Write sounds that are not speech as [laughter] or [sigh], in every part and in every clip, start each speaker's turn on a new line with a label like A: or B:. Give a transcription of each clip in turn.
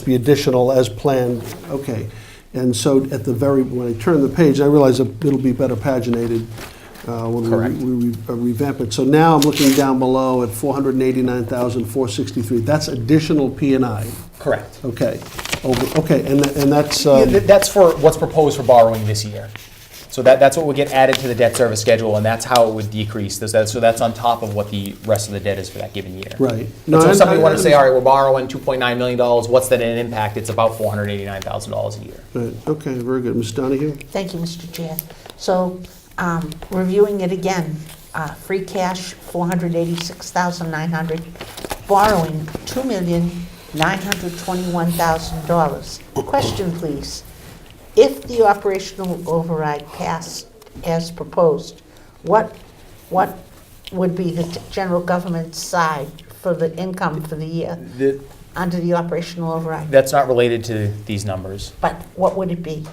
A: to be additional as planned, okay. And so at the very, when I turn the page, I realize that it'll be better paginated uh, when we
B: Correct.
A: re- we re- uh, revamp it. So now I'm looking down below at 489,463. That's additional P and I,
B: Correct.
A: okay. Over, okay, and tha- and that's,
B: Yeah,
A: um,
B: th- That's for what's proposed for borrowing this year. So that, that's what would get added to the debt service schedule, and that's how it would decrease. Those- that- So that's on top of what the rest of the debt is for that given year.
A: Right. No,
B: And so
A: I-
B: if somebody
A: I-
B: wanted to say,
A: I-
B: all right, we're borrowing $2.9 million, what's that in impact? It's about $489,000 a year.
A: right, uh, okay, very good. Ms. Donahue?
C: Thank you, Mr. Chair. So, um, reviewing it again, uh, free cash, 486900 borrowing, $2,921,000. Question, please. If the operational override passed as proposed, what, what would be the general government side for the income for the year
B: The-
C: under the operational override?
B: That's not related to these numbers.
C: But what would it be?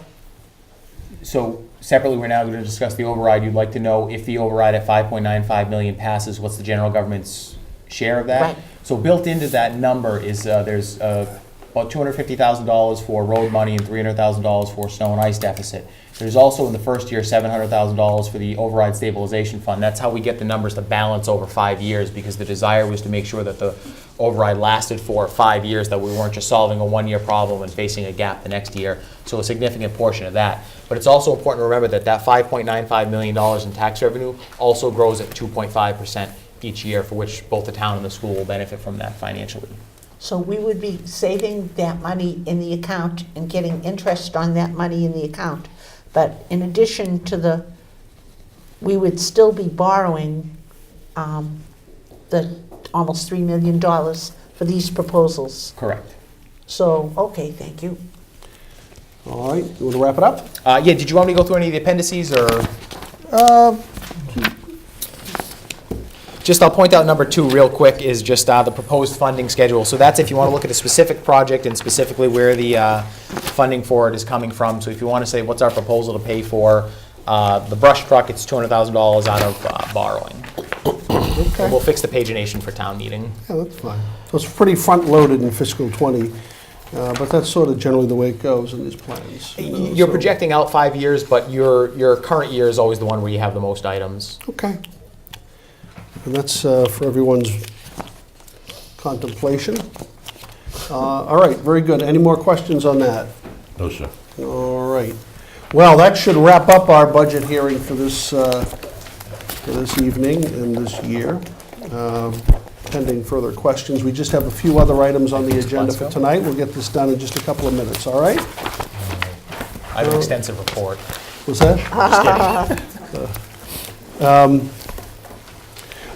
B: So separately, we're now going to discuss the override. You'd like to know if the override at 5.95 million passes, what's the general government's share of that?
C: Right.
B: So built into that number is, uh, there's uh, about $250,000 for road money and $300,000 for snow and ice deficit. There's also in the first year, $700,000 for the override stabilization fund. That's how we get the numbers to balance over five years, because the desire was to make sure that the override lasted for five years, that we weren't just solving a one-year problem and facing a gap the next year. So a significant portion of that. But it's also important to remember that that $5.95 million in tax revenue also grows at 2.5% each year, for which both the town and the school will benefit from that financially.
C: So we would be saving that money in the account and getting interest on that money in the account. But in addition to the, we would still be borrowing um, the almost $3 million for these proposals.
B: Correct.
C: So, okay, thank you.
A: All right, you want to wrap it up?
B: Uh, yeah, did you want me to go through any of the appendices or? Uh, Just, I'll point out number two real quick is just uh, the proposed funding schedule. So that's if you want to look at a specific project and specifically where the uh, funding for it is coming from. So if you want to say, what's our proposal to pay for uh, the brush truck, it's $200,000 out of uh, borrowing.
A: Okay.
B: And we'll fix the pagination for town meeting.
A: Yeah, that's fine. So it's pretty front-loaded in fiscal '20, but that's sort of generally the way it goes in these plans. you know,
B: You're
A: so-
B: projecting out five years, but your, your current year is always the one where you have the most items.
A: Okay. And that's uh, for everyone's contemplation. Uh, All right, very good. Any more questions on that?
D: No, sir.
A: All right. Well, that should wrap up our budget hearing for this, uh, for this evening and this year. Um, Pending further questions, we just have a few other items on the agenda for
B: Plasko?
A: tonight. We'll get this done in just a couple of minutes, all right?
B: I have an extensive report.
A: Was that?
B: Just
A: [laughs]
B: kidding.
A: Um,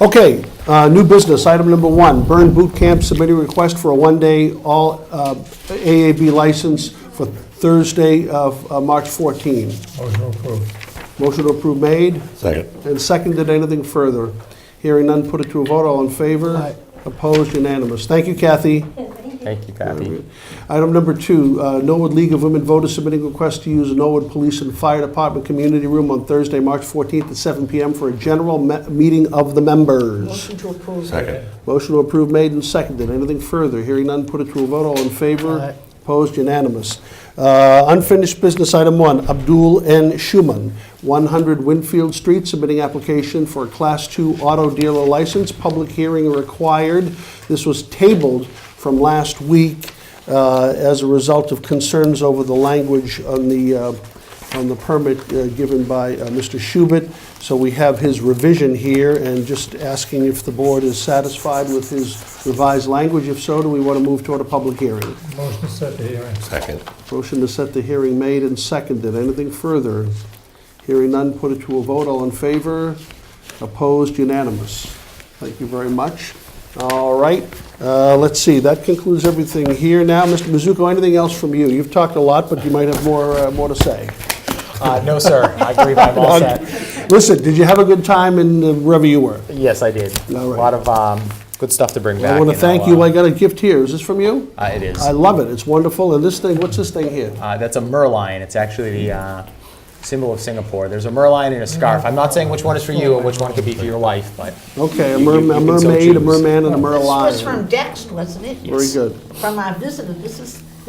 A: Okay, uh, new business, item number one, Burn Boot Camp submitted a request for a one-day all uh, AAB license for Thursday of uh, March 14.
E: Motion approved.
A: Motion to approve made
D: Second.
A: and seconded, anything further? Hearing none, put it to a vote, all in favor? Opposed, unanimous. Thank you, Kathy.
B: Thank you, Kathy.
A: Item number two, uh, Norwood League of Women Voters submitting request to use Norwood Police and Fire Department Community Room on Thursday, March 14th at 7 PM for a general me- meeting of the members.
C: Motion to approve.
D: Second.
A: Motion to approve made and seconded. Anything further? Hearing none, put it to a vote. All in favor? Opposed? Unanimous. Uh, Unfinished business item one, Abdul N. Schuman, 100 Winfield Street, submitting application for a Class II auto dealer license. Public hearing required. This was tabled from last week uh, as a result of concerns over the language on the uh, on the permit uh, given by uh, Mr. Schubert. So we have his revision here and just asking if the board is satisfied with his revised language. If so, do we want to move toward a public hearing?
E: Motion to set the hearing.
D: Second.
A: Motion to set the hearing made and seconded. Anything further? Hearing none, put it to a vote. All in favor? Opposed? Unanimous. Thank you very much. All right, uh, let's see, that concludes everything here. Now, Mr. Mizuko, anything else from you? You've talked a lot, but you might have more, uh, more to say.
B: Uh, no, sir, I agree, I'm all set.
A: Listen, did you have a good time in uh, wherever you were?
B: Yes, I did. A
A: All right.
B: lot of, um, good stuff to bring back.
A: I want to
B: and I'll,
A: thank you.
B: uh,
A: I got a gift here. Is this from you?
B: Uh, it is.
A: I love it. It's wonderful. And this thing, what's this thing here?
B: Uh, that's a merlion. It's actually the uh, symbol of Singapore. There's a merlion and a scarf. I'm not saying which one is for you and which one could be for your wife, but
A: Okay, a
B: You- you-
A: merm- a
B: you can so
A: mermaid, a
B: choose.
A: merman, and a
C: This was from
A: merlion.
C: Dext, wasn't it?
A: Very good.
C: From our visitor, this is